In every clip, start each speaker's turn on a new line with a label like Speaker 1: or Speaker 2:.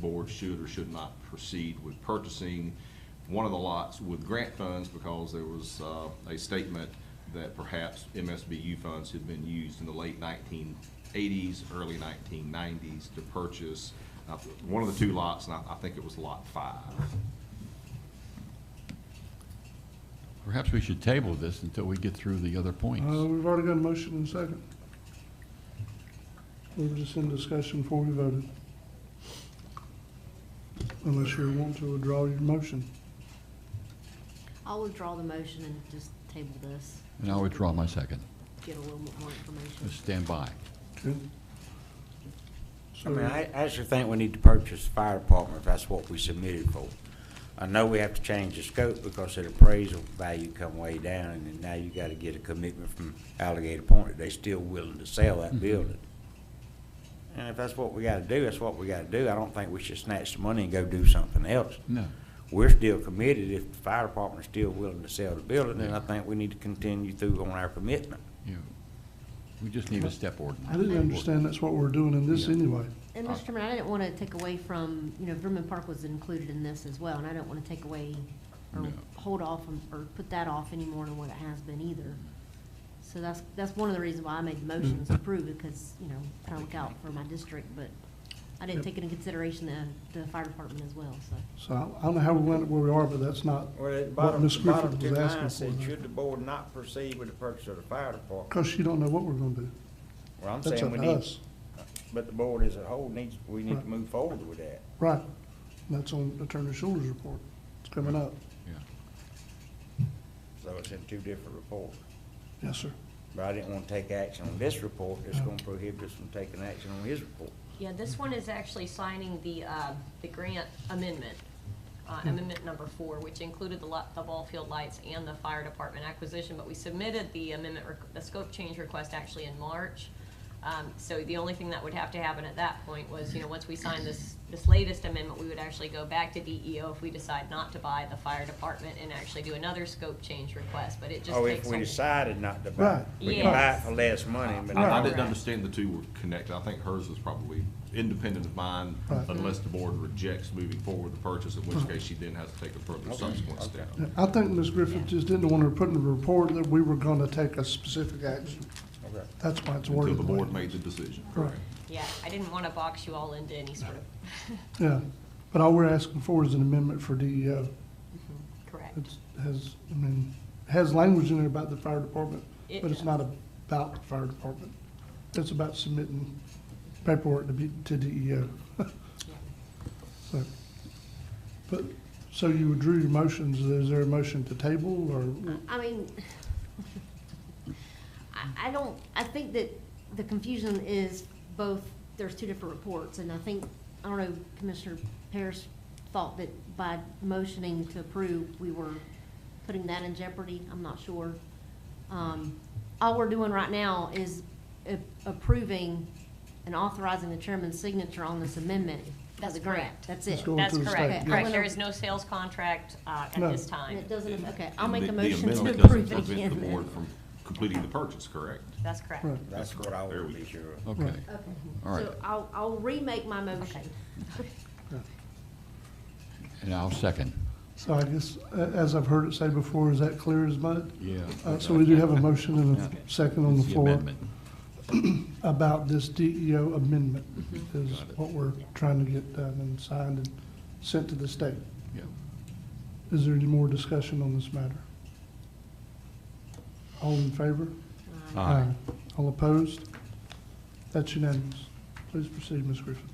Speaker 1: board should or should not proceed with purchasing one of the lots with grant funds because there was uh, a statement that perhaps MSBU funds had been used in the late 1980s, early 1990s to purchase uh, one of the two lots, and I I think it was Lot 5.
Speaker 2: Perhaps we should table this until we get through the other
Speaker 3: Uh,
Speaker 2: points.
Speaker 3: we've already got a motion and a second. We were just in discussion before we voted. Unless you want to withdraw your motion.
Speaker 4: I'll withdraw the motion and just table this,
Speaker 2: And I withdraw my second.
Speaker 4: get a little bit more information.
Speaker 2: Just stand by.
Speaker 3: Okay.
Speaker 5: I
Speaker 3: So,
Speaker 5: mean, I I actually think we need to purchase the fire department if that's what we submitted for. I know we have to change the scope because the appraisal value come way down, and then now you gotta get a commitment from Alligator Point that they still willing to sell
Speaker 3: Mm-hmm.
Speaker 5: that building. And if that's what we gotta do, that's what we gotta do. I don't think we should snatch the money and go do something else.
Speaker 2: No.
Speaker 5: We're still committed. If the fire department's still willing to sell the building, then I think we need to continue through on our commitment.
Speaker 2: you- We just need a step ordinance.
Speaker 3: I didn't understand that's what we're doing in this
Speaker 2: Yeah.
Speaker 3: anyway.
Speaker 4: And Mr. Chairman, I didn't want to take away from, you know, Vernon Park was included in this as well, and I don't want to take away or
Speaker 2: No.
Speaker 4: hold off on- or put that off any more than what it has been either. So that's, that's one of the reasons why I made the motion
Speaker 2: Mm-hmm.
Speaker 4: is to approve, because, you know, trying to look out for my district, but I didn't
Speaker 3: Yep.
Speaker 4: take into consideration the, the fire department as well, so.
Speaker 3: So I- I don't know how we went where we are, but that's not,
Speaker 5: Well, at the
Speaker 3: What
Speaker 5: bottom,
Speaker 3: Ms.
Speaker 5: the
Speaker 3: Griffith
Speaker 5: bottom
Speaker 3: was
Speaker 5: two
Speaker 3: asking
Speaker 5: lines said,
Speaker 3: for.
Speaker 5: should the board not proceed with the purchase of the fire department?
Speaker 3: because you don't know what we're gonna do.
Speaker 5: Well, I'm
Speaker 3: That's
Speaker 5: saying
Speaker 3: up
Speaker 5: we
Speaker 3: to
Speaker 5: need,
Speaker 3: us.
Speaker 5: but the board as a whole needs, we need
Speaker 3: Right.
Speaker 5: to move forward with that.
Speaker 3: Right. And That's on Attorney Schuler's report. It's coming up.
Speaker 2: Yeah.
Speaker 5: So it's in two different reports.
Speaker 3: Yes, sir.
Speaker 5: But I didn't want to take action on this report that's going to prohibit us from taking action on his report.
Speaker 6: Yeah, this one is actually signing the, uh, the grant amendment, uh,
Speaker 5: Hmm.
Speaker 6: amendment number four, which included the lot, the ball field lights and the fire department acquisition, but we submitted the amendment, req- the scope change request actually in March. Um, so the only thing that would have to happen at that point was, you know, once we sign this, this latest amendment, we would actually go back to DEO if we decide not to buy the fire department and actually do another scope change request, but it just
Speaker 5: Oh, if
Speaker 6: takes.
Speaker 5: we
Speaker 6: a-
Speaker 5: decided not to buy, it.
Speaker 3: Right.
Speaker 5: we can buy it
Speaker 6: Yes.
Speaker 5: for less money, but
Speaker 1: I I
Speaker 5: not
Speaker 1: didn't
Speaker 6: Correct.
Speaker 1: understand the two were connected. I think hers was probably independent of mine
Speaker 3: Right.
Speaker 1: unless the board rejects moving forward the purchase, in which case she then has to take a further subsequent step.
Speaker 3: Yeah, I think Ms. Griffith just didn't want to put in the report that we were gonna take a specific action.
Speaker 5: Okay.
Speaker 3: That's why it's
Speaker 1: Until
Speaker 3: worded.
Speaker 1: the
Speaker 3: way
Speaker 1: board
Speaker 3: it
Speaker 1: made
Speaker 3: is.
Speaker 1: the decision.
Speaker 3: Right.
Speaker 6: Yeah, I didn't wanna box you all into any sort of,
Speaker 3: Yeah, but all we're asking for is an amendment for DEO.
Speaker 6: correct.
Speaker 3: It has, I mean, has language in there about the fire department,
Speaker 6: It
Speaker 3: but it's
Speaker 6: does.
Speaker 3: not about the fire department. It's about submitting paperwork to be, to E DEO. So, but, so you withdrew your motions, is there a motion to table or?
Speaker 4: I mean, I, I don't, I think that the confusion is both, there's two different reports, and I think, I don't know, Commissioner Parrish thought that by motioning to approve, we were putting that in jeopardy, I'm not sure. Um, all we're doing right now is a- approving and authorizing the chairman's signature on this amendment.
Speaker 6: That's
Speaker 4: as a grant.
Speaker 6: correct.
Speaker 4: That's
Speaker 3: Let's
Speaker 4: it.
Speaker 3: go on
Speaker 6: That's
Speaker 3: to the
Speaker 6: correct,
Speaker 3: state.
Speaker 6: correct.
Speaker 4: Yeah.
Speaker 6: There is no sales contract uh,
Speaker 3: No.
Speaker 6: at this
Speaker 4: And
Speaker 6: time.
Speaker 4: it doesn't, okay, I'll make
Speaker 1: The-
Speaker 4: a motion
Speaker 1: The
Speaker 4: to
Speaker 1: amendment doesn't
Speaker 4: approve it
Speaker 1: prevent the
Speaker 4: again.
Speaker 1: board from completing the purchase, correct?
Speaker 6: That's correct.
Speaker 3: Right.
Speaker 5: that's what I
Speaker 1: There
Speaker 5: would
Speaker 1: we
Speaker 5: be
Speaker 1: go.
Speaker 5: sure of.
Speaker 2: Okay.
Speaker 4: Okay,
Speaker 2: All right.
Speaker 4: so I'll, I'll remake my motion.
Speaker 2: And I'll second.
Speaker 3: So I guess, a- as I've heard it say before, is that clear as mud?
Speaker 2: Yeah.
Speaker 3: Uh, so we do have a motion and a second on the
Speaker 2: It's
Speaker 3: floor.
Speaker 2: amendment.
Speaker 3: about this DEO amendment is
Speaker 2: Got it.
Speaker 3: what we're trying to get done and signed and sent to the state.
Speaker 2: Yeah.
Speaker 3: Is there any more discussion on this matter? All in favor?
Speaker 2: Aye.
Speaker 3: All opposed? That's unanimous. Please proceed, Ms. Griffin.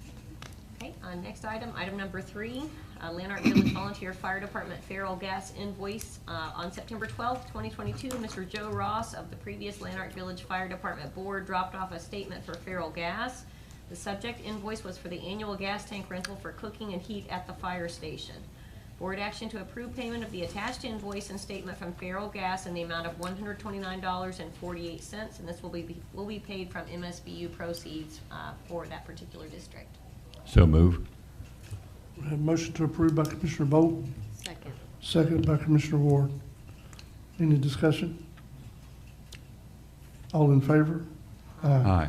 Speaker 6: Okay, uh, next item, item number three, uh, Lanark Village Volunteer Fire Department feral gas invoice. uh, On September twelfth, twenty twenty-two, Mr. Joe Ross of the previous Lanark Village Fire Department Board dropped off a statement for feral gas. The subject invoice was for the annual gas tank rental for cooking and heat at the fire station. Board action to approve payment of the attached invoice and statement from Feral Gas in the amount of one hundred twenty-nine dollars and forty-eight cents, and this will be, will be paid from MSBU proceeds uh, for that particular district.
Speaker 2: So move.
Speaker 3: We have a motion to approve by Commissioner Bolt,
Speaker 4: Second.
Speaker 3: second by Commissioner Ward. Any discussion? All in favor?
Speaker 2: Aye.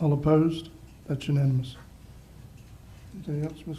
Speaker 3: All opposed? That's unanimous. Anything else, Ms.